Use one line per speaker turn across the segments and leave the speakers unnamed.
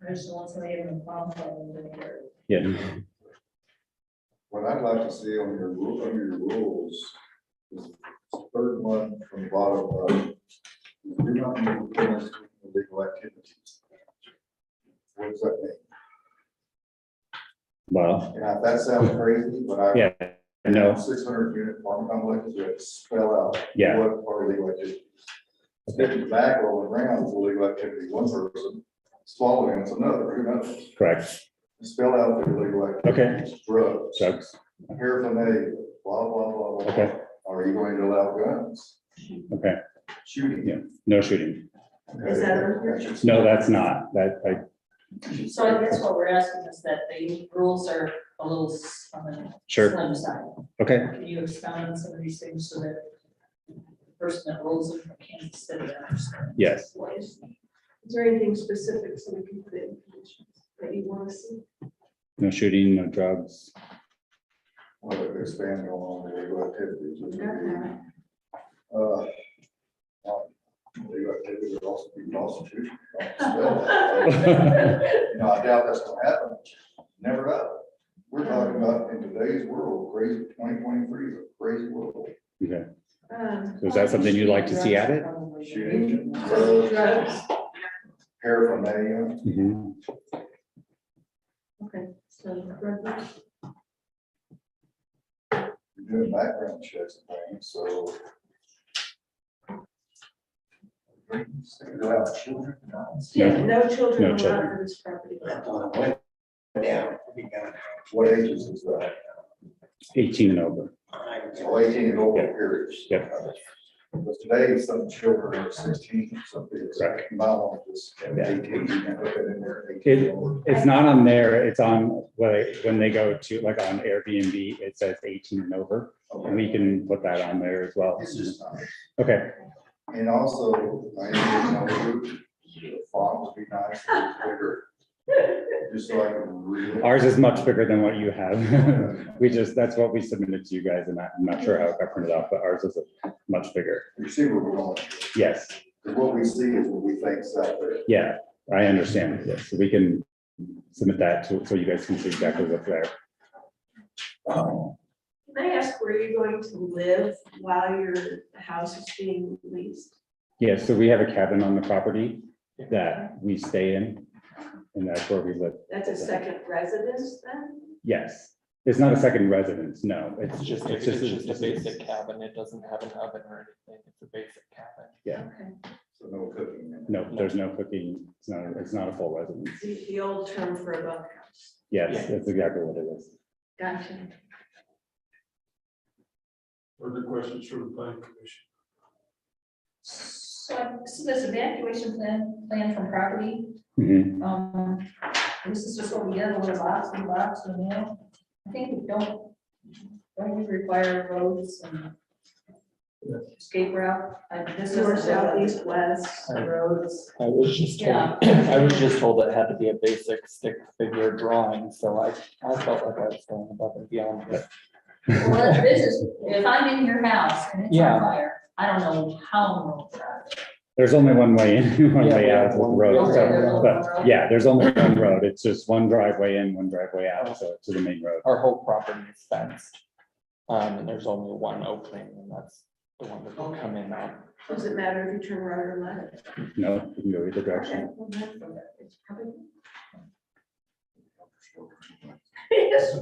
Traditional, somebody in the problem, and then you're-
Yeah.
What I'd like to see on your rule, under your rules, is third one from the bottom up. You Do not need to put us in illegal activities. What does that mean?
Well,
Yeah, that sounds crazy, but I.
yeah, no,
Six hundred unit farm complex, you have to spell out.
Yeah.
What are illegal activities? Sticking tobacco and rounds is illegal activity, one person, swallowing it's another, who knows?
correct.
Spell out the illegal activities. Drugs.
Drugs.
paraphernalia, blah, blah, blah, blah.
Okay.
Are you going to allow guns?
Okay,
Shooting?
Yeah. no shooting.
Is that on here?
That's your-
No, that's not, that, I,
So I guess what we're asking is that the rules are a little s- on the
sure,
slim side.
okay.
Can you expound on some of these things so that the person that rules it from Kansas City understands?
Yes.
what is-
Is there anything specific so we can put in conditions that you want to see?
No shooting, no drugs.
Well, they're expanding on the legal activities. which would be,
Okay.
uh, uh, Legal activities would also be prostitution. You know, I doubt that's gonna happen. Never know. We're talking about in today's world, crazy, twenty twenty-three is a crazy world.
Okay,
Um,
so is that something you'd like to see added?
Probably.
Shooting,
so
drugs,
drugs,
paraphernalia,
Mhm.
okay, so drugs,
you're doing background checks and things, so. Single out children, guns.
yeah, no children
No
allowed
children.
on this property.
Yeah. What ages is that?
Eighteen and over.
So eighteen and over
Yeah.
periods.
Yeah.
But today, some children are sixteen, some kids.
Correct.
My one is
Yeah.
eighteen, you can put it in there,
It-
18 or-
It's not on there, it's on, when when they go to, like on Airbnb, it says eighteen and over.
Okay.
We can put that on there as well.
It's just, not-
Okay,
and also, I need to know who- the font would be nice, and bigger. Just so I can read. it.
ours is much bigger than what you have. We just, that's what we submitted to you guys and I- I'm not sure how it got printed off, but ours is much bigger.
You see where we're going,
Yes,
'Cause what we see is what we think's out there.
yeah, I understand. Yes, we can submit that to, so you guys can see exactly what's there.
Um,
Can I ask where you're going to live while your house is being leased?
Yeah, so we have a cabin on the property that we stay in and that's where we live.
That's a second residence then?
Yes, it's not a second residence, no, it's
It's just,
just,
a-
it's just.
it's just a basic cabin. It doesn't have an oven or anything. It's a basic cabin.
Yeah.
Okay.
So no cooking. in it.
No, there's no cooking, it's not, it's not a full residence.
The, the old term for a bunkhouse.
Yes, that's exactly what it is.
Gotcha.
Further questions from the planning commission?
So I- so this evacuation plan, plan from property,
Mhm.
um, this is just what we did, a little box, a box, and now, I think we don't, don't we require roads and escape route, like this
North,
is
south,
southeast
east, west.
roads.
I was just
Yeah.
told, I was just told it had to be a basic stick figure drawing, so I, I felt like I was going above and beyond. but-
Well, what it is, is if I'm in your house and it's on
Yeah.
fire, I don't know how I'm gonna drive.
There's only one way in, one
Yeah,
way
we
out,
have
it's one
one-
road,
Okay, there's
so,
only one
but,
road.
yeah, there's only one road, it's just one driveway in, one driveway out, so to the main road.
Our whole property is fenced. Um, and there's only one opening and that's the one that will come in on.
Does it matter if you turn right or left?
No, you can go either
Okay,
direction.
well, that's- it's probably-
Yes.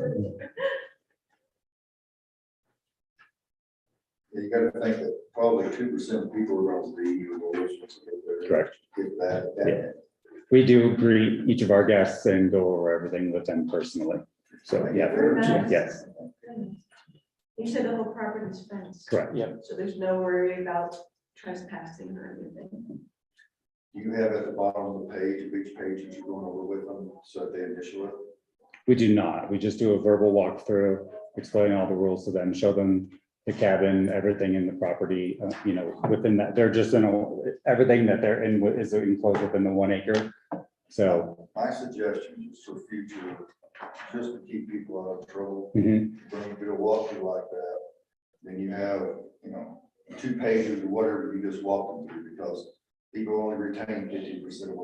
You gotta think that probably two percent of people around the E EU will listen to it.
Correct.
Get that, that,
We do greet each of our guests and go over everything with them personally. So, yeah, yes,
goodness. You said the whole property is fenced.
correct.
So there's no worry about trespassing or anything.
you have at the bottom of the page, of each page that you're going over with them, so they initial it.
We do not, we just do a verbal walkthrough, explain all the rules to them, show them the cabin, everything in the property, uh, you know, within that, they're just in, a- everything that they're in is enclosed within the one acre. So,
My suggestion is for future, just to keep people out of trouble,
mhm,
when you do a walkthrough like that, then you have, you know, two pages or whatever you just walk them through, because people only retain fifty percent of what